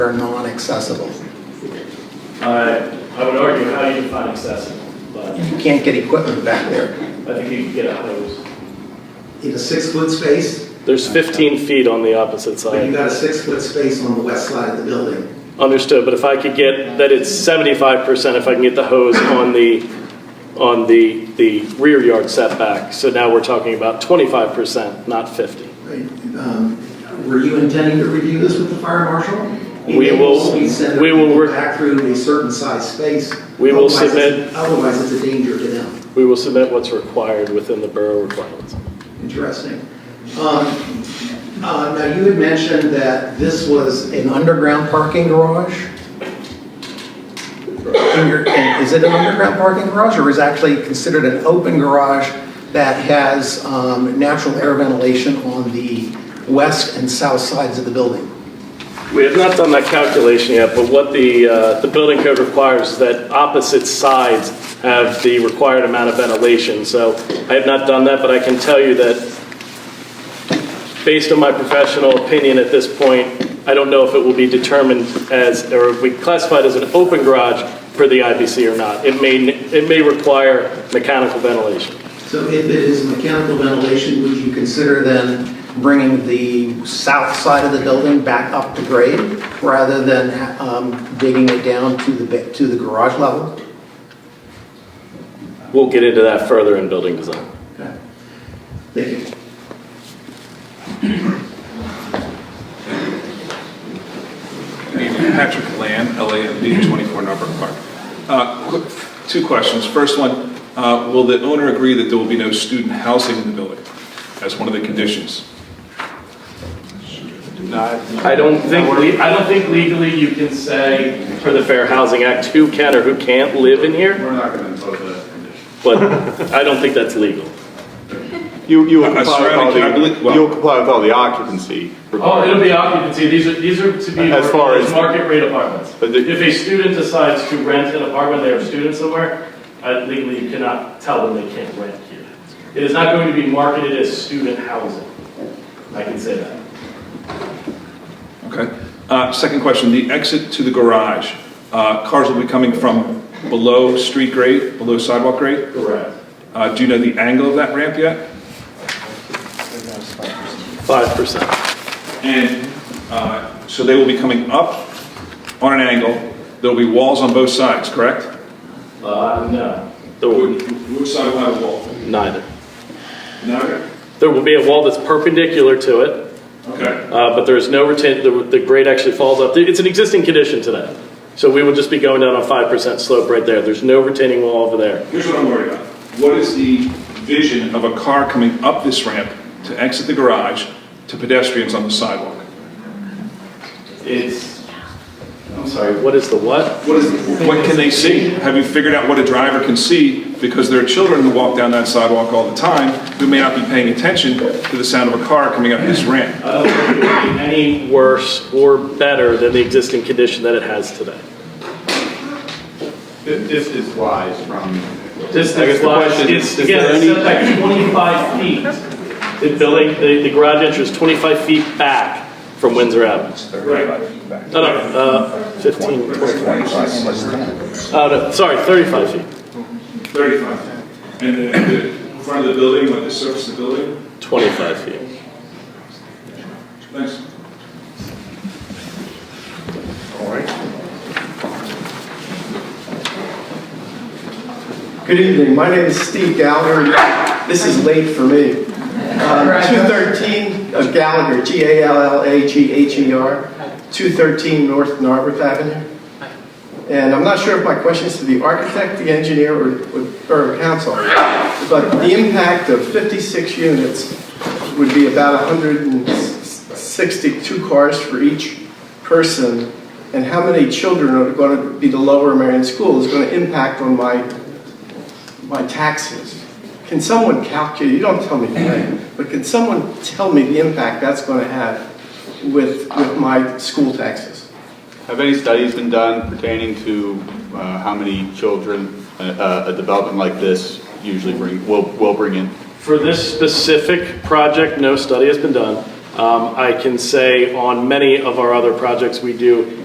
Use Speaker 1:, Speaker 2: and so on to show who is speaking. Speaker 1: are non-accessible.
Speaker 2: Uh, I would argue how you define accessible, but
Speaker 1: You can't get equipment back there.
Speaker 2: I think you can get a hose.
Speaker 3: in a six-foot space,
Speaker 4: There's 15 feet on the opposite
Speaker 3: but you
Speaker 4: side.
Speaker 3: got a six-foot space on the west side of the building.
Speaker 4: Understood, but if I could get, that it's 75% if I can get the hose on the, on the, the rear yard setback. So now we're talking about 25%, not 50.
Speaker 3: right? Um, Were you intending to review this with the fire marshal?
Speaker 4: We will-
Speaker 3: We send
Speaker 4: we will
Speaker 3: people
Speaker 4: work-
Speaker 3: back through a certain size space.
Speaker 4: We will
Speaker 3: Otherwise, it's-
Speaker 4: submit-
Speaker 3: Otherwise, it's a danger to them.
Speaker 4: We will submit what's required within the borough requirements.
Speaker 3: Interesting. Um, uh, Now, you had mentioned that this was
Speaker 1: An
Speaker 3: a,
Speaker 1: underground parking garage? And you're- and Is it an underground parking garage or is it actually considered an open garage that has um, natural air ventilation on the west and south sides of the building?
Speaker 4: We have not done that calculation yet, but what the, uh, the building code requires is that opposite sides have the required amount of ventilation. So I have not done that, but I can tell you that based on my professional opinion at this point, I don't know if it will be determined as, or if we classified as an open garage for the IBC or not. It may, it may require mechanical ventilation.
Speaker 3: so if it is mechanical ventilation, would you consider then
Speaker 1: Bringing the south side of the building back up to grade rather than um, digging it down to the, ba- to the garage level?
Speaker 4: We'll get into that further in building design.
Speaker 3: Okay. Thank you.
Speaker 5: Good evening, Patrick Land, LAMD 24 Norfolk Park. Uh, quick- Two questions. First one, uh, will the owner agree that there will be no student housing in the building as one of the conditions?
Speaker 4: I don't think, le- I don't think legally you can say for the Fair Housing Act who can or who can't live in here,
Speaker 6: We're not going to impose that condition.
Speaker 4: but I don't think that's legal.
Speaker 7: You, you
Speaker 5: Uh,
Speaker 7: will comply with
Speaker 5: surrounding
Speaker 7: all
Speaker 5: cabinet?
Speaker 7: the,
Speaker 5: Well-
Speaker 7: you'll comply with all the occupancy
Speaker 4: Oh, it'll
Speaker 7: requirements.
Speaker 4: be occupancy, these are, these are to be
Speaker 7: As far as-
Speaker 4: market rate apartments.
Speaker 7: But the-
Speaker 4: If a student decides to rent an apartment, they are a student somewhere, I- legally you cannot tell them they can't rent here. It is not going to be marketed as student housing, I can say that.
Speaker 5: Okay. Uh, Second question, the exit to the garage, uh, cars will be coming from below street grade, below sidewalk grade?
Speaker 4: Correct.
Speaker 5: Uh, Do you know the angle of that ramp yet?
Speaker 4: Five percent.
Speaker 5: And uh, so they will be coming up on an angle. There'll be walls on both sides, correct?
Speaker 4: Uh, no. There
Speaker 5: Which side will have a wall?
Speaker 4: neither.
Speaker 5: No?
Speaker 4: There will be a wall that's perpendicular to it,
Speaker 5: Okay.
Speaker 4: Uh, but there is no retain, the, the grade actually falls up. It's an existing condition today. So we will just be going down a five percent slope right there. There's no retaining wall over there.
Speaker 5: Here's what I'm worried about. What is the vision of a car coming up this ramp to exit the garage to pedestrians on the sidewalk?
Speaker 6: It's, I'm sorry,
Speaker 4: What is the what?
Speaker 5: What is, what can they see? Have you figured out what a driver can see? Because there are children who walk down that sidewalk all the time who may not be paying attention to the sound of a car coming up this ramp.
Speaker 4: I don't think it would be any worse or better than the existing condition that it has today.
Speaker 6: thi- this is wise from,
Speaker 4: This
Speaker 7: I guess the
Speaker 4: lot
Speaker 7: question
Speaker 4: is,
Speaker 7: is, is
Speaker 4: again,
Speaker 7: there
Speaker 4: it's
Speaker 7: any-
Speaker 4: set back twenty-five feet. The building, the, the garage entrance is twenty-five feet back from Windsor Avenue. No, no, uh, fifteen. 25. Uh, no, sorry, thirty-five feet.
Speaker 5: 35. And the, the front of the building, like the surface of the building?
Speaker 4: Twenty-five feet.
Speaker 5: Thanks.
Speaker 8: Good evening, my name is Steve Gallagher. This is late for me. Um, 213 of uh, Gallagher, G-A-L-L-A-G-H-E-R, 213 North Narberth Avenue. And I'm not sure if my question is to the architect, the engineer, or or borough council, but the impact of 56 units would be about 162 cars for each person, and how many children are going to be the Lower Merion School is going to impact on my my taxes. Can someone calculate, you don't tell me today, but can someone tell me the impact that's going to have with, with my school taxes?
Speaker 7: Have any studies been done pertaining to uh, how many children uh, uh, a development like this usually bring, will, will bring in?
Speaker 4: For this specific project, no study has been done. Um, I can say on many of our other projects, we do